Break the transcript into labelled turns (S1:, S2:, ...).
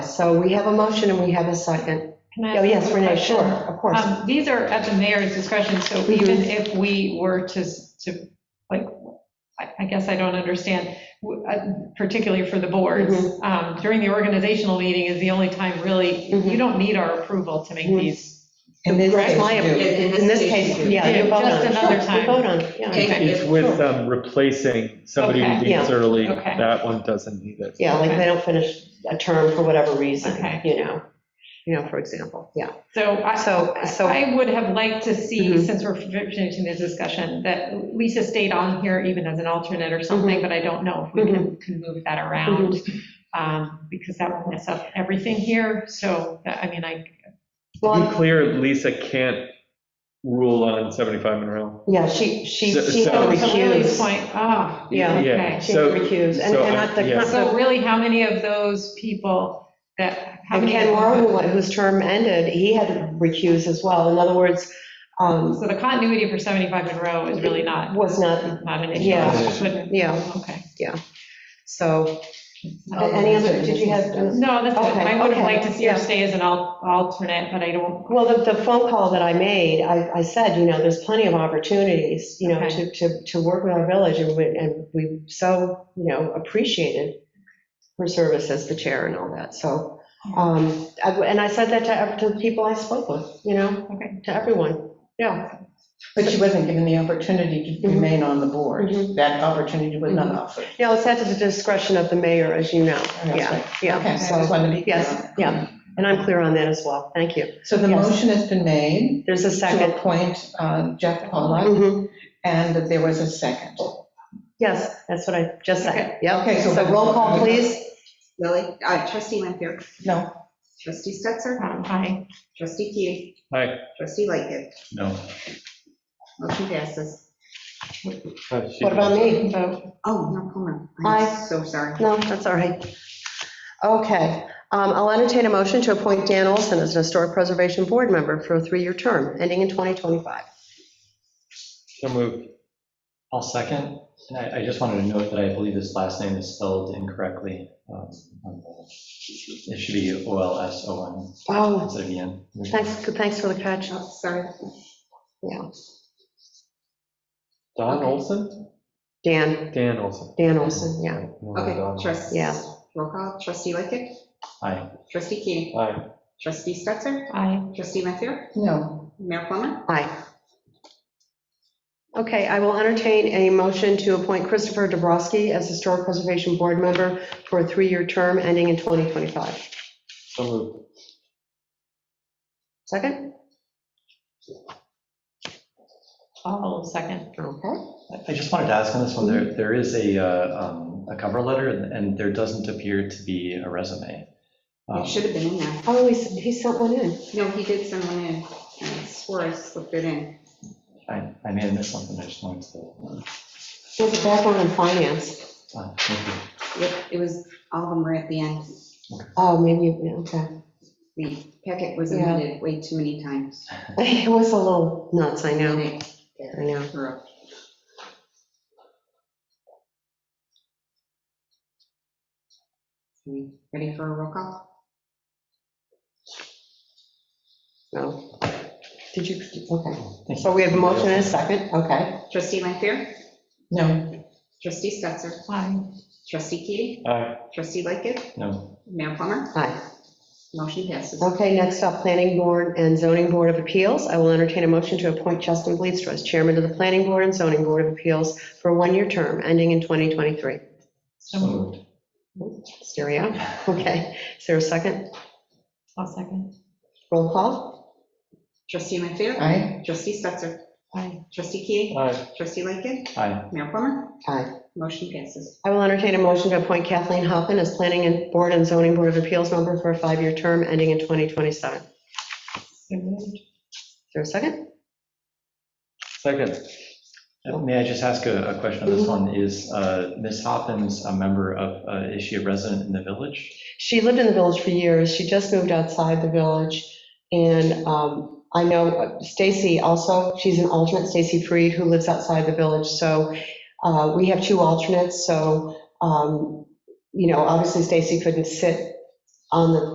S1: So we have a motion and we have a second.
S2: Can I
S1: Oh,
S2: ask
S1: yes,
S2: a
S1: Renee,
S2: question?
S1: sure, of course.
S2: Um, These are at the mayor's discretion, so
S1: Mhm.
S2: even if we were to, to, like, I I guess I don't understand, w- uh, particularly for the boards,
S1: Mm-hmm.
S2: um, during the organizational meeting is the only time really,
S1: Mhm.
S2: you don't need our approval to make
S1: Mhm.
S2: these.
S3: In this
S1: Correct?
S3: case,
S1: My-
S3: you do.
S1: In this case, yeah, you
S2: Yeah,
S1: vote on.
S2: just
S1: it.
S2: another
S1: Sure,
S2: time.
S1: You vote on, it,
S2: Okay.
S1: yeah.
S4: It's with um, replacing somebody who
S2: Okay.
S1: Yeah.
S4: leaves early.
S2: Okay.
S4: That one doesn't need it.
S1: Yeah, like
S2: Okay.
S1: they don't finish a term for whatever reason,
S2: Okay.
S1: you know, you know, for example, yeah.
S2: So I,
S1: So, so.
S2: I would have liked to see,
S1: Mhm.
S2: since we're finishing this discussion, that Lisa stayed on here even as an alternate or
S1: Mm-hmm.
S2: something, but I don't know if we can, can move that around, um, because that will mess up everything here, so, I mean, I,
S4: To be
S1: Well,
S4: clear, Lisa can't rule on 75 Monroe.
S1: yeah, she, she,
S4: So-
S1: she
S4: so-
S1: had
S2: to Lily's
S1: recused.
S2: point, ah,
S1: Yeah.
S2: okay.
S1: She had
S4: So-
S1: recused. And
S4: so uh,
S1: and
S4: I-
S1: not the-
S4: yeah.
S1: not the-
S2: So really, how many of those people that, how
S1: And
S2: many?
S1: Ken Moore, who- whose term ended, he had to recuse as well. In other words, um,
S2: So the continuity for 75 Monroe is really not,
S1: was not,
S2: not an issue.
S1: Yeah.
S2: I couldn't-
S1: Yeah.
S2: Okay.
S1: so, any other, did you have?
S2: No, that's, it.
S1: Okay,
S2: I would
S1: okay,
S2: have liked to see her
S1: yeah.
S2: stay as an al- alternate, but I don't,
S1: Well, the, the phone call that I made, I, I said, you know, there's plenty of opportunities, you know,
S2: Okay.
S1: to, to, to work with our village, and we, and we so, you know, appreciated her service as the chair and all that, so, um, I- and I said that to, ev- to the people I spoke with, you know,
S2: okay.
S1: to everyone, yeah.
S3: But she wasn't given the opportunity to
S1: Mhm.
S3: remain on the board.
S1: Mhm.
S3: That opportunity was not offered.
S1: No, it's at the discretion of the mayor, as you know,
S3: That's
S1: yeah,
S3: right. Okay,
S1: yeah,
S3: so I just
S1: so,
S3: wanted to be clear.
S1: yes, yeah, and I'm clear on that as well, thank you.
S3: So the
S1: Yes.
S3: motion has been made
S1: There's a
S3: to
S1: second.
S3: appoint uh, Jeff Pollak,
S1: Mhm.
S3: and that there was a second.
S1: Yes, that's what I just said, yeah.
S3: Okay, so-
S1: So roll call, please.
S5: Lily, uh, trustee Lampier,
S3: No,
S5: trustee Stetser,
S2: Um, Hi.
S5: trustee Keating,
S4: Hi.
S5: trustee Lightgev,
S4: No.
S5: motion passes.
S1: What about me?
S2: So,
S5: Oh, no, hold on.
S1: Aye.
S5: I'm so sorry.
S1: No, that's all right. Okay, um, I'll entertain a motion to appoint Dan Olson as an Historic Preservation Board member for a three-year term, ending in 2025.
S4: So moved.
S6: I'll second. And I, I just wanted to note that I believe his last name is spelled incorrectly. um, on the- It should be O L S O N
S1: Oh,
S6: instead of E N.
S1: thanks, thanks for the catch.
S5: Oh, Sorry.
S1: Yeah,
S4: Don Olson?
S1: Dan,
S4: Dan Olson.
S1: Dan Olson, yeah.
S4: No, Don.
S5: Okay, trustee.
S1: Yeah.
S5: Roll call, trustee Lightgev,
S6: Aye.
S5: trustee Keating,
S4: Hi.
S5: trustee Stetser,
S2: Hi.
S5: trustee Lampier,
S3: no.
S5: mayor Plummer,
S1: Aye. Okay, I will entertain a motion to appoint Christopher Dabrowski as Historic Preservation Board member for a three-year term, ending in 2025.
S4: So moved.
S1: Second?
S2: I'll second.
S1: Okay.
S6: I- I just wanted to ask on this one, there, there is a, uh, um, a cover letter and and there doesn't appear to be a resume. Um,
S5: it should have been in there.
S1: Oh, he s- he sent one in.
S5: No, he did send one in, I swore I slipped it in.
S6: I, I may have missed something. I just wanted to.
S1: He has a background in finance.
S6: uh, thank you.
S5: Yep, it was, all of them were at the end.
S1: Oh, maybe, yeah, okay.
S5: The packet was
S1: Yeah.
S5: amended way too many times.
S1: It was a little nuts, I know,
S5: And it-
S1: I know.
S5: Correct. Okay, Ready for a roll call?
S1: No. Did you, okay. So we have a motion and a second, okay.
S5: Trustee Lanfair?
S3: No,
S5: Trustee Stetser?
S2: Hi.
S5: Trustee Keating?
S4: Hi.
S5: Trustee Lightgev?
S6: No,
S5: Mayor Plummer?
S1: Aye.
S5: Motion passes.
S1: Okay, next up, Planning Board and Zoning Board of Appeals. I will entertain a motion to appoint Justin Bleedstra as chairman of the Planning Board and Zoning Board of Appeals for a one-year term ending in 2023.
S2: So
S6: so
S2: moved.
S6: moved.
S1: Stereo, okay. Is there a second?
S2: I'll second.
S1: Roll call?
S5: Trustee Lanfair?
S3: aye,
S5: Trustee Stetser?
S2: Hi.
S5: Trustee Keating?
S4: Hi.
S5: Trustee Lightgev?
S6: Aye.
S5: Mayor Plummer?
S1: Aye.
S5: Motion passes.
S1: I will entertain a motion to appoint Kathleen Hoffman as Planning and Board and Zoning Board of Appeals member for a five-year term ending in 2027. Is
S2: So moved.
S1: there a second?
S4: Second.
S6: May I just ask a a question on this one? Is uh, Ms. Hoppins a member of, uh, is she a resident in the village?
S1: She lived in the village for years. She just moved outside the village. And um, I know Stacy also, she's an alternate, Stacy Freed, who lives outside the village. So uh, we have two alternates, so, um, you know, obviously Stacy couldn't sit on the